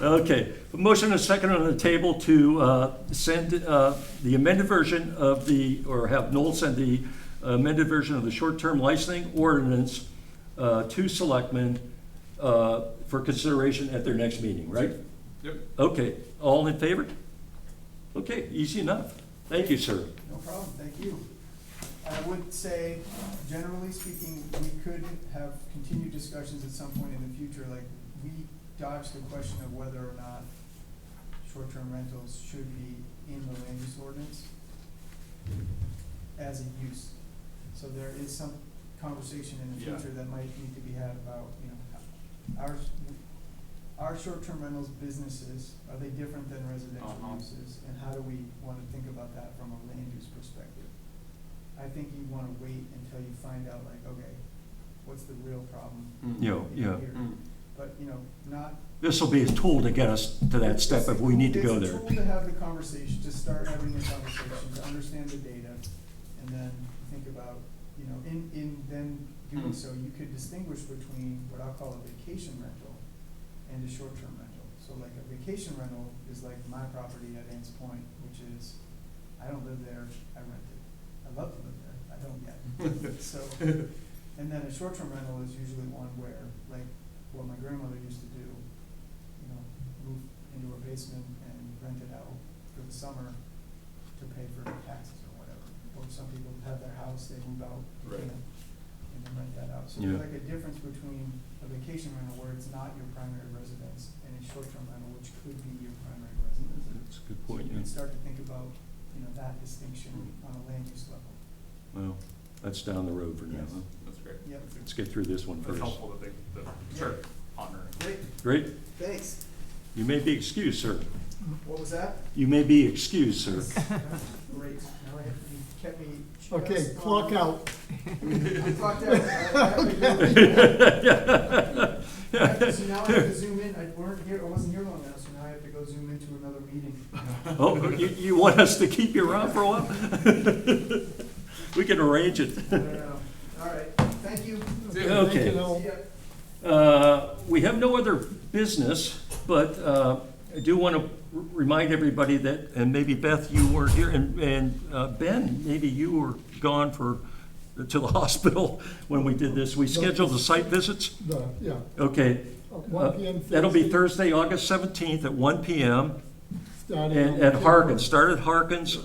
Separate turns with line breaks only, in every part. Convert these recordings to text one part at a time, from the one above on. Okay, A motion and a second on the table to uh, send uh, the amended version of the, or have Noel send the amended version of the short-term licensing ordinance uh, to selectmen uh, for consideration at their next meeting, right?
Yep.
Okay, all in favor? Okay, easy enough. Thank you, sir.
No problem, thank you. I would say, generally speaking, we could have continued discussions at some point in the future, like, we dodged the question of whether or not short-term rentals should be in the land use ordinance as a use. So there is some conversation in the
Yeah.
future that might need to be had about, you know, our, our short-term rentals businesses, are they different than residential
Uh-huh.
uses? And how do we wanna think about that from a land use perspective? I think you wanna wait until you find out like, okay, what's the real problem
Mm-hmm.
You know, yeah.
here? But, you know, not
This will be a tool to get us to that step if we need to go there.
It's a tool to have the conversation, to start having the conversation, to understand the data, and then think about, you know, in, in then doing
Hmm.
so, you could distinguish between what I'll call a vacation rental and a short-term rental. So like a vacation rental is like my property at Ann's Point, which is, I don't live there, I rent it. I love to live there, I don't yet, so. And then a short-term rental is usually one where, like, what my grandmother used to do, you know, move into her basement and rent it out for the summer to pay for taxes or whatever. Or some people have their house, they move out, you
Right.
know, and then rent that out. So
Yeah.
there's like a difference between a vacation rental where it's not your primary residence and a short-term rental which could be your primary residence.
That's a good
So
point,
you
yeah.
can start to think about, you know, that distinction on a land use level.
Well, that's down the road for now.
Yes.
huh?
That's great.
Yep.
Let's get through this one
That's
first.
helpful that they, that start pondering.
Great,
Great.
thanks.
You may be excused, sir.
What was that?
You may be excused, sir.
Great, now I have, you kept me. just
Okay,
on-
clock out.
I'm clocked out. I- I have to go. I- So now I have to zoom in, I weren't here, I wasn't here long enough, so now I have to go zoom into another meeting.
Oh, you, you want us to keep you around for a while? We can arrange it.
I don't know. um, All right, thank you.
Okay.
Thank you, Noel.
See ya.
Uh, We have no other business, but uh, I do want to remind everybody that, and maybe Beth, you weren't here, and, and uh, Ben, maybe you were gone for, to the hospital when we did this. We scheduled the site visits.
The- Yeah,
Okay.
at
uh,
one PM.
That'll be Thursday, August 17th at 1 PM
starting
and
on
at
April.
Harkins. Start at Harkins,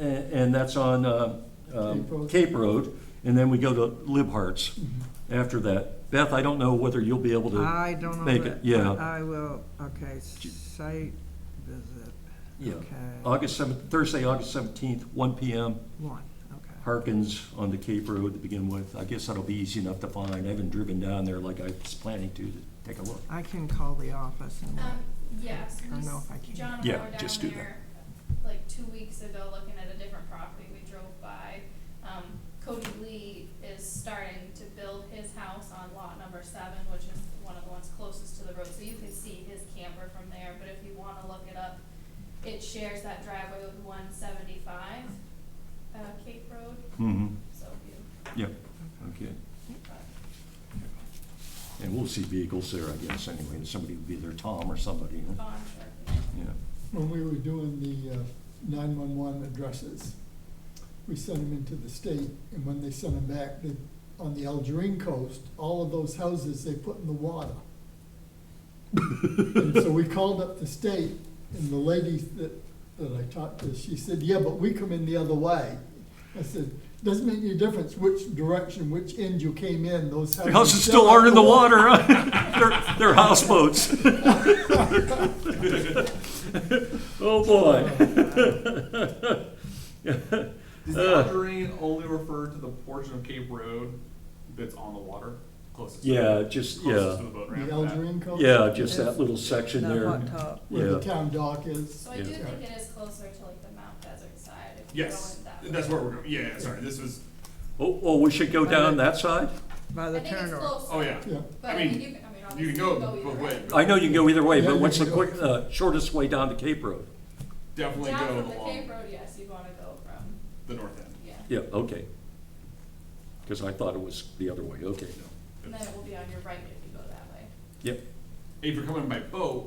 a- and that's on uh, um,
Cape Road.
Cape Road, and then we go to Libhart's
Mm-hmm.
after that. Beth, I don't know whether you'll be able to.
I don't know.
make
that-
it, yeah.
I will, okay, site visit,
Yeah,
okay,
August seventh, Thursday, August seventeenth, one PM,
one, okay.
Harkins on the Cape Road to begin with. I guess that'll be easy enough to find. I haven't driven down there like I was planning to, to take a look.
I can call the office and,
Um, yes,
I don't know if I can.
John and
Yeah,
I were
just
down
do that.
there, like, two weeks ago, looking at a different property, we drove by. Um, Cody Lee is starting to build his house on lot number seven, which is one of the ones closest to the road, so you can see his camper from there, but if you wanna look it up, it shares that driveway with one seventy-five, uh, Cape Road,
Mm-hmm.
so if you
Yep, okay. And we'll see vehicles there, I guess, anyway. and Somebody will be there, Tom or somebody, you know?
bond or,
yeah.
When we were doing the uh, nine-one-one addresses, we sent them into the state, and when they sent them back, they, on the Algerine coast, all of those houses they put in the water. And so we called up the state, and the lady that, that I talked to, she said, yeah, but we come in the other way. I said, doesn't make any difference which direction, which end you came in, those houses.
The houses still
are
aren't in the water, huh? They're, they're houseboats. Oh, boy.
Does
Uh.
the Algerine only refer to the portion of Cape Road that's on the water closest? to the-
Yeah, just,
Closest
yeah,
to the boat ramp?
The
that-
Algerine coast.
yeah, just that little section
the
there.
hot tub.
Where the
Yeah.
town dock is.
so I do
Yeah.
think it is closer to like the Mount Desert side, if you're
Yes,
going that way.
that's where we're going. Yeah, yeah, sorry, this was,
Oh, oh, we should go down that side?
by the
I think it's
turnover.
closer.
oh, yeah.
Yeah,
But
I
I mean,
mean,
you can, I mean,
You
obviously
can go
either
both ways. but
I know you can go either way,
Yeah,
but
you
what's the
can go.
quick, uh, shortest way down to Cape Road?
Definitely
Down
go
from the Cape
along
Road, yes, you wanna go from,
the north end.
yeah,
Yeah, okay. Because I thought it was the other way, okay.
and then it will be on your right if you go that way.
Yep,
If you're coming by boat,